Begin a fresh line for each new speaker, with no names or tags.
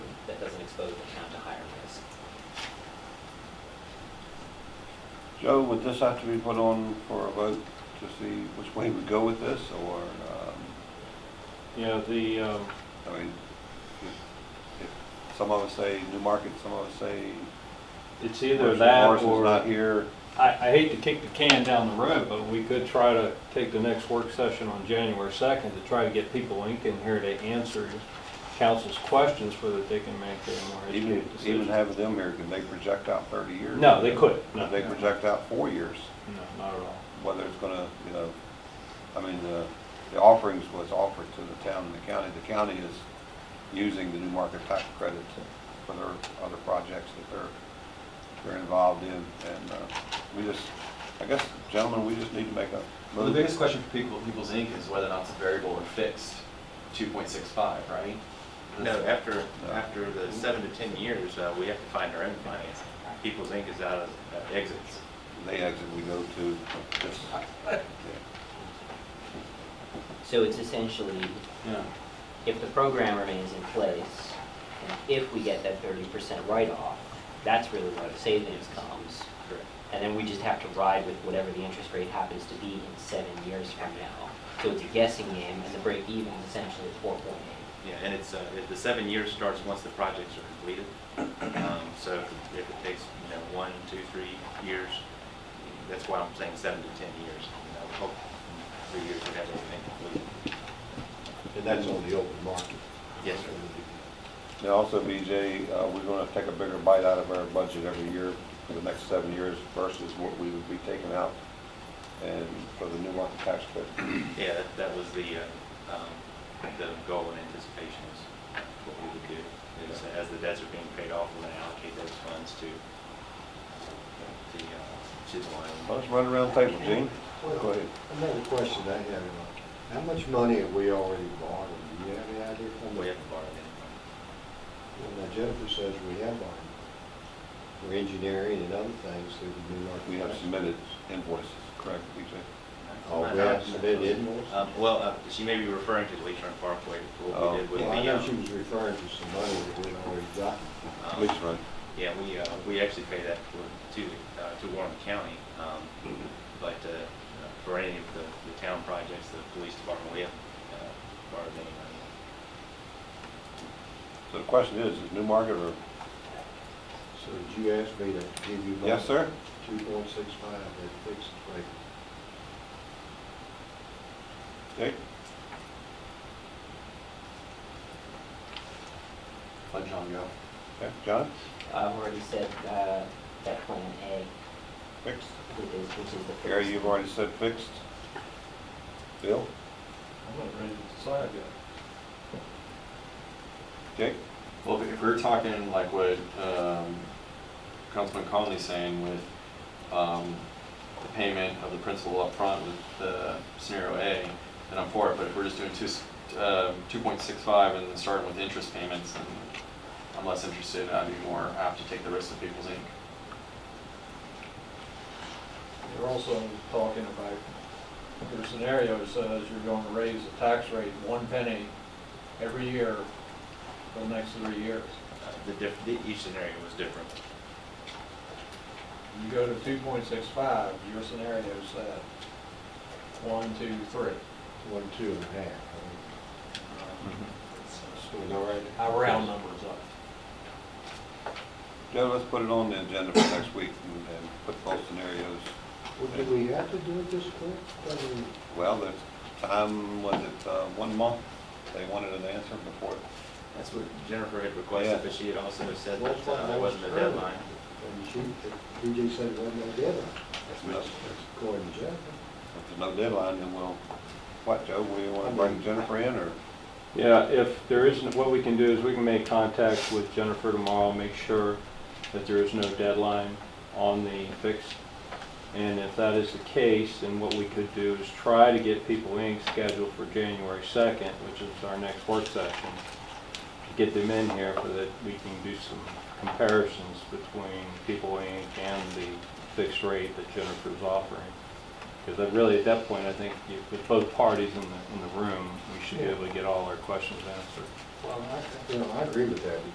expose the town to higher risk.
Joe, would this have to be put on for a vote to see which way we go with this, or, um,
Yeah, the, um,
I mean, if- if some of us say Newmarket, some of us say
it's
Either
either that
Morrison's
or,
not
I,
here.
I hate to kick the can down the road, but we could try to take the next work session on January second to try to get people in here to answer council's questions so that they can make a more
Even,
educated
even
decision.
having them here, can they project out thirty years?
No, they couldn't, no,
Could they
no,
project out four years,
not at all.
whether it's gonna, you know, I mean, the, the offerings was offered to the town and the county. The county is using the new market tax credits for their other projects that they're, they're involved in. And, uh, we just, I guess, gentlemen, we just need to make a.
Well, the biggest question for people, People's Inc. is whether or not it's variable or fixed, two point six five, right?
No, after,
No.
after the seven to 10 years, uh, we have to find our own financing. People's Inc. is out of uh, exits.
They exit, we go to this.
So it's essentially,
Yeah.
if the program remains in place, and if we get that thirty percent write-off, that's really where the savings comes. And then we just have to ride with whatever the interest rate happens to be in seven years from now. So it's a guessing game, and the break even is essentially four point eight.
Yeah, and it's, uh, the seven years starts once the projects are completed. Um, So if it takes, you know, one, two, three years, that's why I'm saying seven to 10 years. You know, we hope in three years we have everything completed.
And that's on the open market.
Yes, sir.
Now also, BJ, uh, we're gonna take a bigger bite out of our budget every year for the next seven years versus what we would be taking out and for the new market tax credit.
Yeah, that- that was the, uh, um, the goal and anticipation is what we would do. is As the debts are being paid off, we're going to allocate those funds to the, uh, to the line.
Let's run around the table, Gene. Go ahead.
Another question I have, how much money have we already borrowed? Do you have any idea? how much?
We haven't borrowed any
Well, now Jennifer says we have borrowed for engineering and other things through the New York.
We have
Times.
submitted invoices, correct, BJ?
Oh, we have submitted invoices?
Um, Well, uh, she may be referring to the Lake Turn Parkway, what we did with the.
Well, I know
um,
she was referring to some money that we already got.
um,
Please run.
Yeah, we, uh, we actually pay that for, to, uh, to Warren County, um, but, uh, for any of the, the town projects, the police department, we haven't, uh, borrowed any money.
So the question is, is new market or,
So did you ask me to give you?
yes, sir?
Two point six five, that fixed rate.
Dick?
Let John go.
Okay, John?
I've already said, uh, that plan A,
Fixed?
which is, which is the first.
Gary, you've already said fixed. Bill?
I'm not ready to decide yet.
Dick?
Well, if we're talking like what um, Councilman Conley's saying with um, the payment of the principal up front with the scenario A, then I'm for it, but if we're just doing two, s- uh, 2.65 and then starting with interest payments, then I'm less interested, I'd be more apt to take the risk of People's Inc.
You're also talking about, your scenario says you're going to raise the tax rate one penny every year for the next three years.
Uh, The diff, the- each scenario was different.
You go to two point six five, your scenario said one, two, three.
One, two and a half. right?
Mm-hmm.
Still all right?
I round numbers up.
Joe, let's put it on the agenda for next week and and put both scenarios.
Well, do we have to do it this quick? I mean,
Well, the time, was it uh, one month? They wanted an answer before.
That's what Jennifer had
Yeah.
requested, but she had also said
Well,
that uh, there wasn't a
early.
deadline.
And she, DJ said it wasn't no deadline,
If there's
according to Jeff.
no deadline, then we'll, what, Joe, we want to bring Jennifer in or?
Yeah, if there isn't, what we can do is we can make contact with Jennifer tomorrow, make sure that there is no deadline on the fix. And if that is the case, then what we could do is try to get People Inc. scheduled for January 2nd, which is our next work session, to get them in here so that we can do some comparisons between People Inc. and the fixed rate that Jennifer's offering. Because really, at that point, I think you- with both parties in the, in the room, we should be able to get all our questions answered.
Well, I, you know, I agree with that,